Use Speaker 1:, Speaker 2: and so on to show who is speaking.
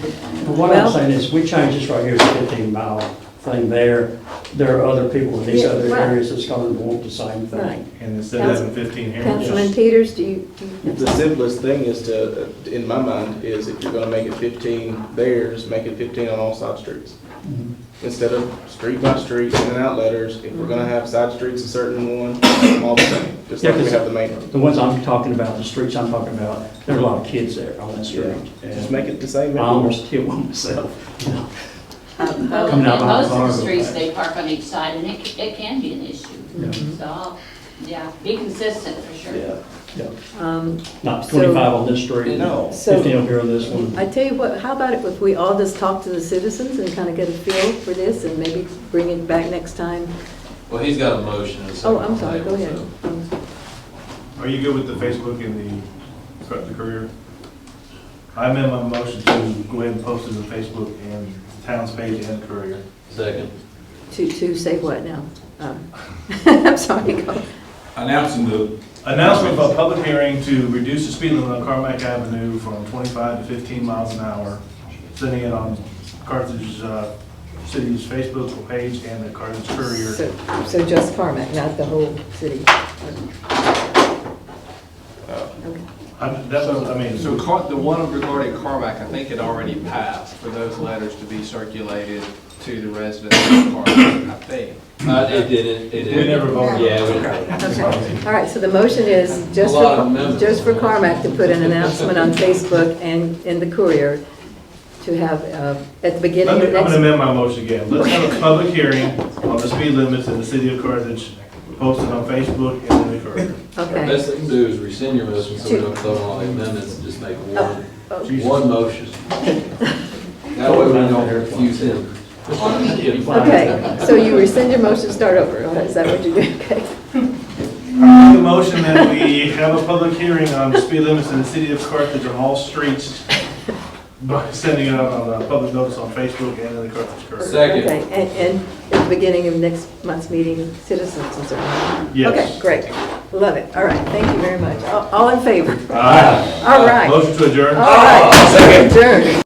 Speaker 1: But What I'm
Speaker 2: Well-
Speaker 1: saying is, we changed this right here to fifteen mile thing there. There are other people in these
Speaker 2: Yeah,
Speaker 1: other
Speaker 2: right.
Speaker 1: areas that's gonna want the same
Speaker 2: Right.
Speaker 1: thing.
Speaker 3: And instead of having fifteen
Speaker 2: Councilman
Speaker 3: here,
Speaker 2: Peters, do you, do you?
Speaker 4: The simplest thing is to, in my mind, is if you're gonna make it fifteen theirs, make it fifteen on all side streets. Instead of street by street, in and out letters, if we're gonna have side streets a certain one, all the same, just like we have the main road.
Speaker 1: The ones I'm talking about, the streets I'm talking about, there are a lot of kids there on that street.
Speaker 4: Just make it the same.
Speaker 1: I almost killed one myself.
Speaker 5: Well,
Speaker 1: Coming
Speaker 5: in most
Speaker 1: out behind the
Speaker 5: Uh, of the
Speaker 1: bar.
Speaker 5: streets, they park on each side, and it, c- it can be an issue. So, I'll- yeah, be consistent for sure.
Speaker 4: Yeah.
Speaker 1: Yeah.
Speaker 2: Um,
Speaker 1: Not
Speaker 2: So-
Speaker 1: twenty-five on this street,
Speaker 4: No.
Speaker 1: fifteen over here on this one.
Speaker 2: I tell you what, how about if we all just talk to the citizens and kind of get a feel for this and maybe bring it back next time?
Speaker 6: Well, he's got a motion and a second.
Speaker 2: Oh, I'm
Speaker 6: on
Speaker 2: sorry,
Speaker 6: the
Speaker 2: go
Speaker 6: table,
Speaker 2: ahead.
Speaker 6: so-
Speaker 2: Um,
Speaker 3: are you good with the Facebook and the, sorry, the career? I amend my motion to go ahead and post it on Facebook and the town's page and the career.
Speaker 6: Second.
Speaker 2: To, to say what now? Um, I'm sorry, go.
Speaker 7: announcing the,
Speaker 3: Announcement of a public hearing to reduce the speed limit on Carmack Avenue from 25 to 15 miles an hour, sending it on Carthage uh, City's Facebook page and the Carthage Courier.
Speaker 2: So- So just Carmack, not the whole city? Okay.
Speaker 3: I- That was, I mean,
Speaker 7: so
Speaker 3: so
Speaker 7: Car- the one regarding Carmack, I think had already passed for those letters to be circulated to the residents of Carmack, I think.
Speaker 6: Uh, it didn't, it
Speaker 3: we never
Speaker 6: didn't.
Speaker 3: voted.
Speaker 6: Yeah, we never.
Speaker 2: Okay. All right, so the motion is just
Speaker 6: A lot of
Speaker 2: for,
Speaker 6: amendments.
Speaker 2: just for Carmack to put an announcement on Facebook and in the courier to have, uh, at the beginning
Speaker 3: Let me,
Speaker 2: of
Speaker 3: I'm gonna
Speaker 2: next.
Speaker 3: amend my motion again. Let's have a public hearing on the speed limits in the city of Carthage, posted on Facebook and in the Courier.
Speaker 2: Okay.
Speaker 6: Best thing to do is rescind your motion so we don't vote on all the amendments and just make one,
Speaker 2: Oh,
Speaker 3: Jesus.
Speaker 6: one motion. That way we don't confuse him.
Speaker 2: Okay, so you rescind your motion, start over, is that what you do? Okay.
Speaker 3: I make a motion that we have a public hearing on the speed limits in the city of Carthage on all streets, by sending it out on a public notice on Facebook and in the Carthage Courier.
Speaker 2: Okay,
Speaker 6: Second.
Speaker 2: and, and at the beginning of next month's meeting, citizens and so on. Okay,
Speaker 3: Yes.
Speaker 2: great, love it, all right, thank you very much, all all in favor,
Speaker 3: Aye.
Speaker 2: all right,
Speaker 6: Uh,
Speaker 3: Motion to adjourn?
Speaker 6: Ah,
Speaker 2: all right. Second. Adjourned.